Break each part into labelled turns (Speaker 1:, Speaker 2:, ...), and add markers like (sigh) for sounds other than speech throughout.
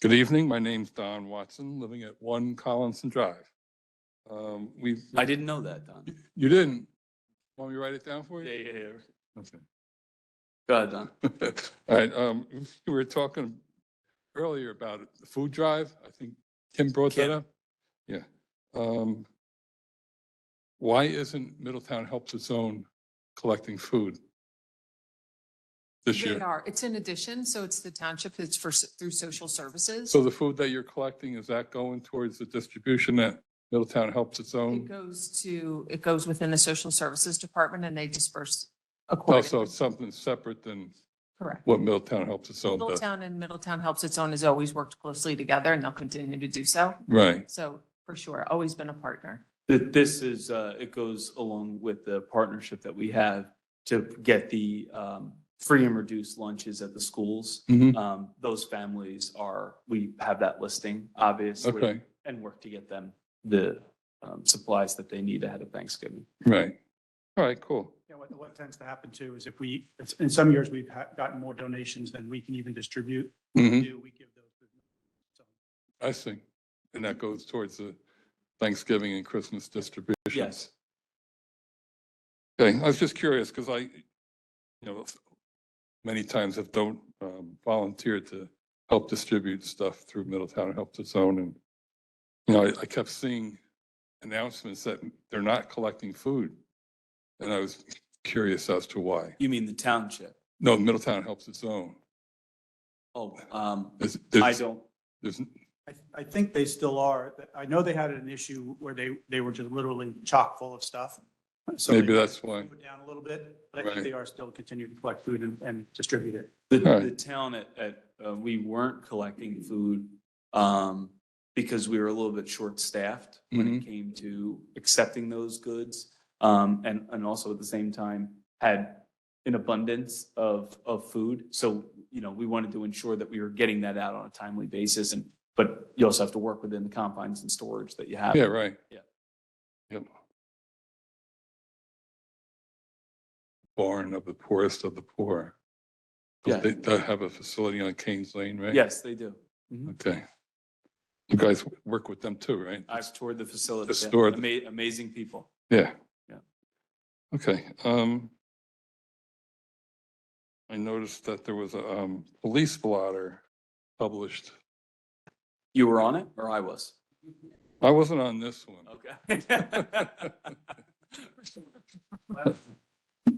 Speaker 1: Good evening. My name's Don Watson, living at One Collinson Drive. Um, we,
Speaker 2: I didn't know that, Don.
Speaker 1: you didn't, want me to write it down for you?
Speaker 2: yeah, yeah.
Speaker 1: Okay.
Speaker 2: Go ahead, Don.
Speaker 1: (laughs) All right, um, we were talking earlier about the food drive. I think Tim brought that
Speaker 2: Kim.
Speaker 1: up. Yeah. Um, why isn't Middletown Helps Its Own collecting food this
Speaker 3: They
Speaker 1: year?
Speaker 3: are. It's in addition, so it's the township, it's for, s- through social services.
Speaker 1: So the food that you're collecting, is that going towards the distribution that Middletown Helps Its
Speaker 3: It
Speaker 1: Own?
Speaker 3: goes to, it goes within the social services department and they disperse
Speaker 1: Oh,
Speaker 3: accordingly.
Speaker 1: Also, something separate than
Speaker 3: Correct.
Speaker 1: what Middletown Helps Its Own does?
Speaker 3: Middletown and Middletown Helps Its Own has always worked closely together and they'll continue to do so.
Speaker 1: Right,
Speaker 3: So for sure, always been a partner.
Speaker 2: Th- This is, uh, it goes along with the partnership that we have to get the um, free and reduced lunches at the schools.
Speaker 1: Mhm.
Speaker 2: Um, Those families are, we have that listing, obviously.
Speaker 1: okay,
Speaker 2: And work to get them the um, supplies that they need ahead of Thanksgiving.
Speaker 1: right. All right, cool.
Speaker 4: Yeah, what, what tends to happen too is if we, it's- in some years, we've ha- gotten more donations than we can even distribute.
Speaker 1: Mhm.
Speaker 4: Do we give those? to- so,
Speaker 1: I see. And that goes towards the Thanksgiving and Christmas distribution.
Speaker 2: Yes.
Speaker 1: Okay, I was just curious because I, you know, many times have don't um, volunteer to help distribute stuff through Middletown Help to Zone. And, you know, I I kept seeing announcements that they're not collecting food. And I was curious as to why.
Speaker 2: You mean the township?
Speaker 1: No, Middletown Helps Its Own.
Speaker 2: Oh, um,
Speaker 1: There's-
Speaker 2: I
Speaker 1: there's-
Speaker 2: don't,
Speaker 1: there's-
Speaker 4: I, I think they still are. I know they had an issue where they, they were just literally chock full of stuff. So they
Speaker 1: Maybe that's why.
Speaker 4: slowed Down a little bit, but I
Speaker 1: Right.
Speaker 4: think they are still continuing to collect food and, and distribute it.
Speaker 2: The,
Speaker 1: Alright.
Speaker 2: the town at, at, uh, we weren't collecting food, um, because we were a little bit short-staffed when
Speaker 1: Mm-hmm.
Speaker 2: it came to accepting those goods. Um, and, and also at the same time had an abundance of, of food. So, you know, we wanted to ensure that we were getting that out on a timely basis and, but you also have to work within the confines and storage that you have.
Speaker 1: Yeah, right.
Speaker 2: Yeah.
Speaker 1: Yep. Barn of the poorest of the poor.
Speaker 2: Yeah.
Speaker 1: They, they have a facility on Kings Lane, right?
Speaker 2: Yes, they do.
Speaker 1: Okay. You guys work with them too, right?
Speaker 2: I've toured the facility.
Speaker 1: The store-
Speaker 2: Ama- Amazing people.
Speaker 1: Yeah.
Speaker 2: Yeah.
Speaker 1: Okay, um. I noticed that there was a, um, police blotter published.
Speaker 2: You were on it or I was?
Speaker 1: I wasn't on this one.
Speaker 2: Okay.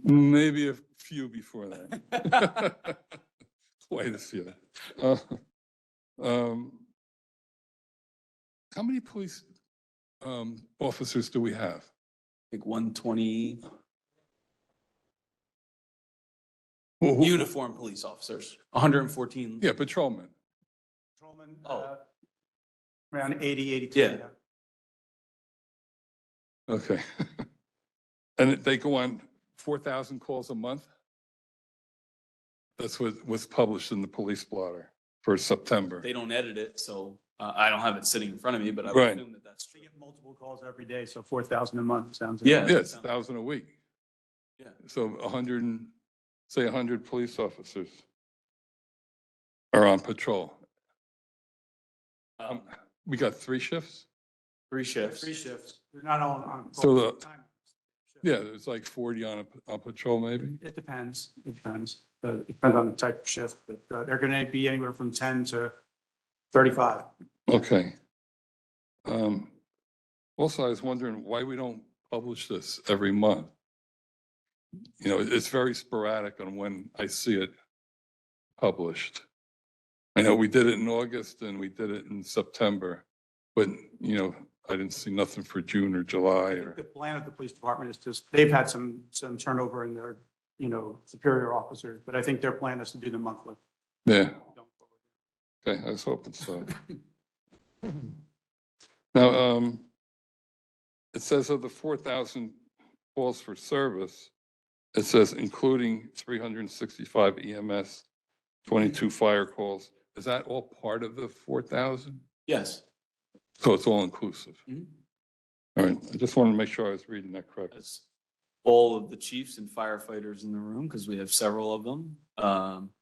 Speaker 1: Maybe a few before that. Quite a few. Uh, um, How many police um, officers do we have?
Speaker 2: like 120
Speaker 1: Who- who-
Speaker 2: uniform police officers, 114.
Speaker 1: Yeah, patrolmen.
Speaker 4: Patrolman,
Speaker 2: Oh.
Speaker 4: uh, Around 80, 82.
Speaker 2: Yeah.
Speaker 1: Okay. (laughs) And they go on 4,000 calls a month? That's what was published in the police blotter for September.
Speaker 2: They don't edit it, so uh, I don't have it sitting in front of me, but I
Speaker 1: Right.
Speaker 2: would assume that that's
Speaker 4: They
Speaker 2: true.
Speaker 4: get multiple calls every day, so 4,000 a month sounds.
Speaker 2: Yeah.
Speaker 1: Yeah, it's 1,000 a week.
Speaker 2: Yeah.
Speaker 1: So 100, and say 100 police officers are on patrol.
Speaker 2: Um,
Speaker 1: We got three shifts?
Speaker 2: Three shifts.
Speaker 4: Three shifts. They're not all on.
Speaker 1: So the-
Speaker 4: time.
Speaker 1: Yeah, there's like 40 on a, on patrol maybe?
Speaker 4: It depends, it depends, Uh, it depends on the type of shift, but uh, they're going to be anywhere from 10 to 35.
Speaker 1: Okay. Um, Also, I was wondering why we don't publish this every month. You know, it's very sporadic on when I see it published. I know we did it in August and we did it in September, but, you know, I didn't see nothing for June or July
Speaker 4: I think
Speaker 1: or,
Speaker 4: The plan of the police department is just, they've had some, some turnover in their, you know, superior officers, but I think their plan is to do them monthly.
Speaker 1: yeah. Okay, I was hoping so. uh, Now, um, it says of the four thousand calls for service, it says including three hundred and sixty-five EMS, twenty-two fire calls. Is that all part of the four thousand?
Speaker 2: Yes.
Speaker 1: So it's all inclusive?
Speaker 2: Mhm.
Speaker 1: All right, I just wanted to make sure I was reading that correctly.
Speaker 2: That's all of the chiefs and firefighters in the room, because we have several of them. Um,